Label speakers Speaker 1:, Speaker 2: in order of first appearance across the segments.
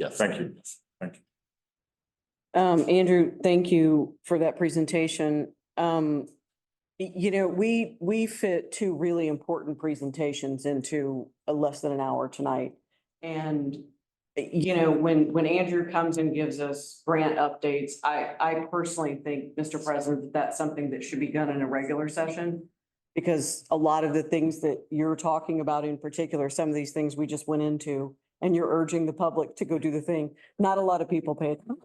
Speaker 1: Yes.
Speaker 2: Thank you.
Speaker 3: Um, Andrew, thank you for that presentation. Um, y- you know, we, we fit two really important presentations into a less than an hour tonight. And, y- you know, when, when Andrew comes and gives us grant updates, I, I personally think, Mr. President, that that's something that should be done in a regular session. Because a lot of the things that you're talking about in particular, some of these things we just went into, and you're urging the public to go do the thing. Not a lot of people pay attention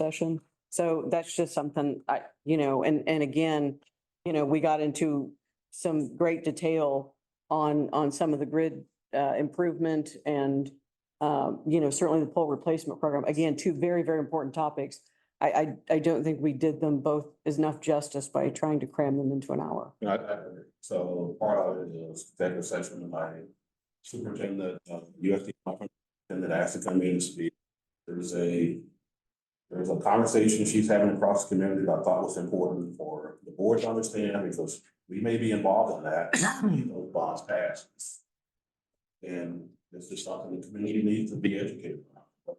Speaker 3: session. So that's just something I, you know, and, and again, you know, we got into some great detail on, on some of the grid uh, improvement and, um, you know, certainly the pole replacement program. Again, two very, very important topics. I, I, I don't think we did them both enough justice by trying to cram them into an hour.
Speaker 1: Yeah, I- I- so part of it is executive session of my superintendent, uh, USD conference, and that asked to come in and speak. There's a, there's a conversation she's having across the community that I thought was important for the board to understand, because we may be involved in that, if those bonds pass. And this is something the community needs to be educated on.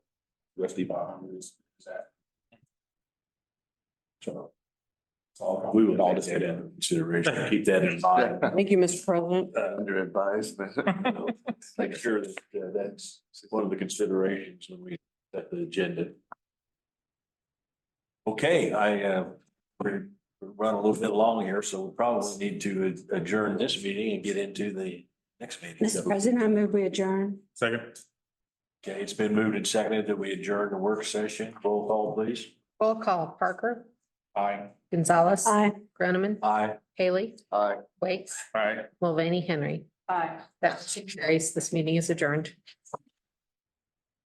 Speaker 1: USD five hundred is is that. So. it's all-
Speaker 2: We would all just get in consideration, keep that in mind, uh,
Speaker 3: Thank you, Mr. President.
Speaker 2: under advisement. you know, Make sure that uh, that's one of the considerations when we set the agenda. Okay, I, uh, we're we're running a little bit long here, so we probably need to adjourn this meeting and get into the next meeting.
Speaker 4: Mr. President, I move we adjourn.
Speaker 1: Second.
Speaker 2: Okay, it's been moved and seconded that we adjourn the work session. Roll call, please.
Speaker 5: Roll call, Parker,
Speaker 2: Aye.
Speaker 5: Gonzalez,
Speaker 4: Aye.
Speaker 5: Groneman,
Speaker 2: Aye.
Speaker 5: Haley,
Speaker 2: Aye.
Speaker 5: Waits,
Speaker 1: All right.
Speaker 5: Mulvaney, Henry.
Speaker 3: Aye.
Speaker 5: That motion carries. This meeting is adjourned.